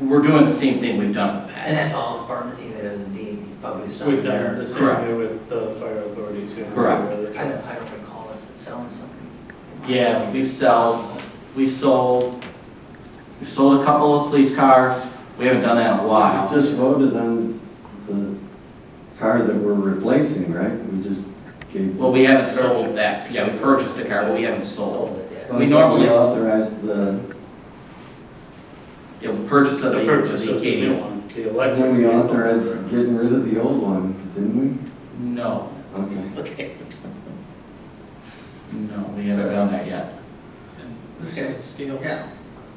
we're doing the same thing we've done in the And past. that's all departments, even as the public stuff. We've done the same Correct. way with the fire authority too. Correct. where they're I trying- don't, I don't recall us selling something. Yeah, we've sold, we've sold, we've sold a couple of police cars, we haven't done that in a We while. Just voted on the car that we're replacing, right? We just gave. Well, we haven't sold that, yeah, we purchased a car, but we haven't sold. Sold it, yeah. we normally- authorized the, Yeah, we purchased of The the, of purchase the of the new Acadia. one, the I electric. think we vehicle authorized program. getting rid of the old one, didn't No, we? Okay. Okay. no, we haven't done that yet. Okay. Steel. Yeah.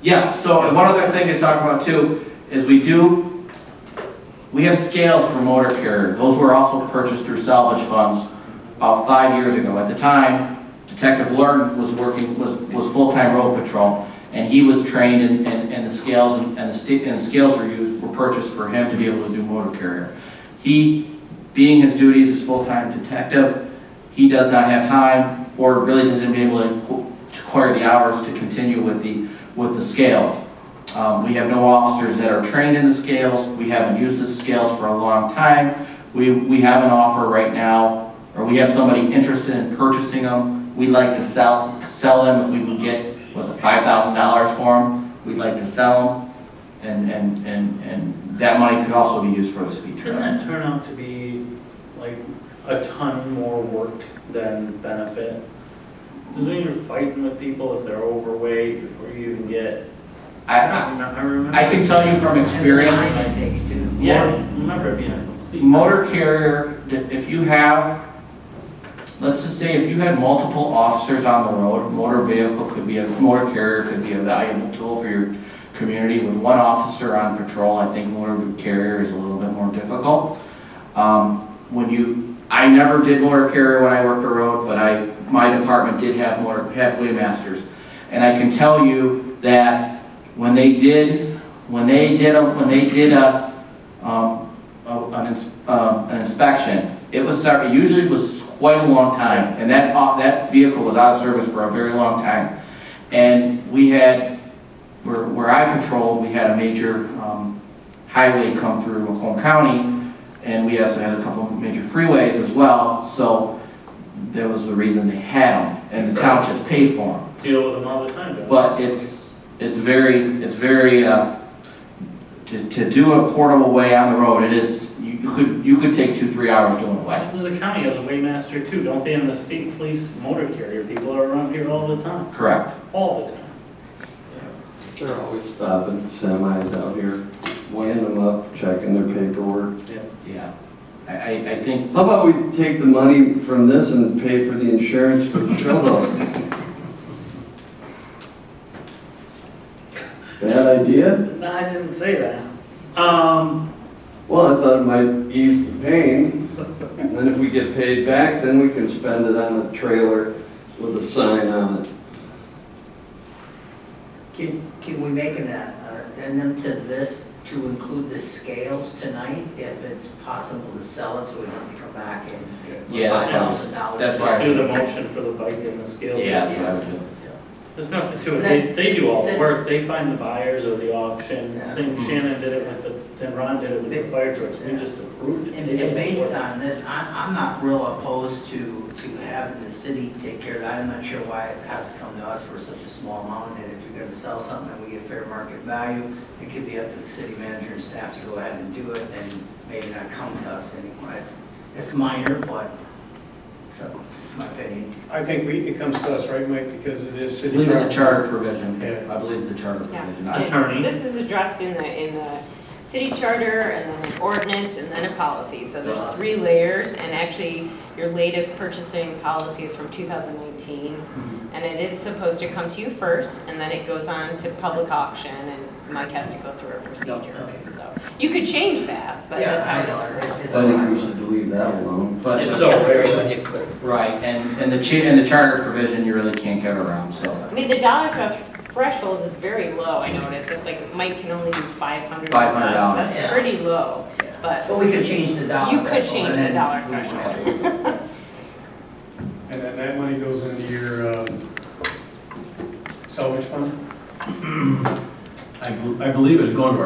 Yeah, so and one other thing to talk about too, is we do, we have scales for motor carrier. Those were also purchased through salvage funds about five years ago. At the time, Detective Lurton was working, was, was full-time road patrol, and he was trained in, in, in the scales, and and the sti- and scales were used, were purchased for him to be able to do motor carrier. He, being his duties as full-time detective, he does not have time, or really doesn't be able to qu- to acquire the hours to continue with the with the scales. Um, We have no officers that are trained in the scales. We haven't used the scales for a long time. We, we have an offer right now, or we have somebody interested in purchasing them. We'd like to sell, sell them if we would get, was it $5,000 for them? We'd like to sell them, and, and, and, and that money could also be used for the speed Shouldn't trap. that turn out to be like a ton more work than benefit? And Then you're fighting with people if they're overweight before you even get, I, I I- don't know, I remember. I can tell you from And the experience, time it takes too. Yeah, I remember it being a complete. Motor carrier, if you have, let's just say if you had multiple officers on the road, motor vehicle could be, a motor carrier could be a valuable tool for your community. With one officer on patrol, I think motor carrier is a little bit more difficult. Um, When you, I never did motor carrier when I worked the road, but I, my department did have motor, had masters, And I can tell you that when they did, when they did, a when they did a, um, a- an, ins- um, an inspection. It was, ser- it usually was quite a long time, and that, au- that vehicle was out of service for a very long time. And we had, where, where I patrolled, we had a major, um, highway come through Macomb County, and we also had a couple of major freeways as well, so that was the reason they had them, and the townships paid for them. Deal with them all the time. don't you? But it's, it's very, it's very, uh, to, to do a portable way on the road, it is, you could, you could take two, three hours doing a way. Well, The county has a waymaster too, don't they? And the state police motor carrier people are around here all the time, Correct. all the time. They're always stopping semis out here, weighing them up, checking their paperwork. Yeah. I, I, I think, How about we take the money from this and pay for the insurance for the show dog? Bad idea? No, I didn't say that. Um, Well, I thought it might ease the pain. And then if we get paid back, then we can spend it on a trailer with a sign on it. Can, can we make an uh, addendum to this to include the scales tonight if it's possible to sell it so we don't have to come back and Yeah, get that's five fine. thousand dollars? That's fine. let's do the motion for the bike and the scales. yeah, so I would do. There's nothing to it. They, they do all the Then- work. They find the buyers or the auction. Yeah. Same Hmm. Shannon did it with the, and Ron did it with the fire trucks. We Yeah. just approved it. And, They did and the based work. on this, I, I'm not real opposed to, to having the city take care of that. I'm not sure why it has to come to us for such a small amount, and if you're gonna sell something and we get fair market value, it could be up to the city manager and staff to go ahead and do it, and maybe not come to us anymore. It's, it's minor, but, so, it's just my opinion. I think we, it comes to us, right, Mike, because it is I city. believe it's a property. charter provision. Yeah. I believe it's a charter Yeah. provision. I- Attorney. This is addressed in the, in the city charter and then an ordinance and then a policy. So there's three layers and actually your latest purchasing policy is from 2019. And it is supposed to come to you first and then it goes on to public auction and Mike has to go through a procedure. So you could change that, but Yeah, that's how I it is. know, currently. it's- I it's think we minor. should leave that alone. But, It's so rare. right, and, and the cha, and the charter provision, you really can't get around, so. I mean, the dollar thre- threshold is very low, I noticed. It's like Mike can only do $500, 500. yeah. That's pretty low, but. But we could change the dollar. You could threshold, change and the then dollar we won't have threshold. to- And then that money goes into your um, salvage fund? I, bel- I believe it'd go into our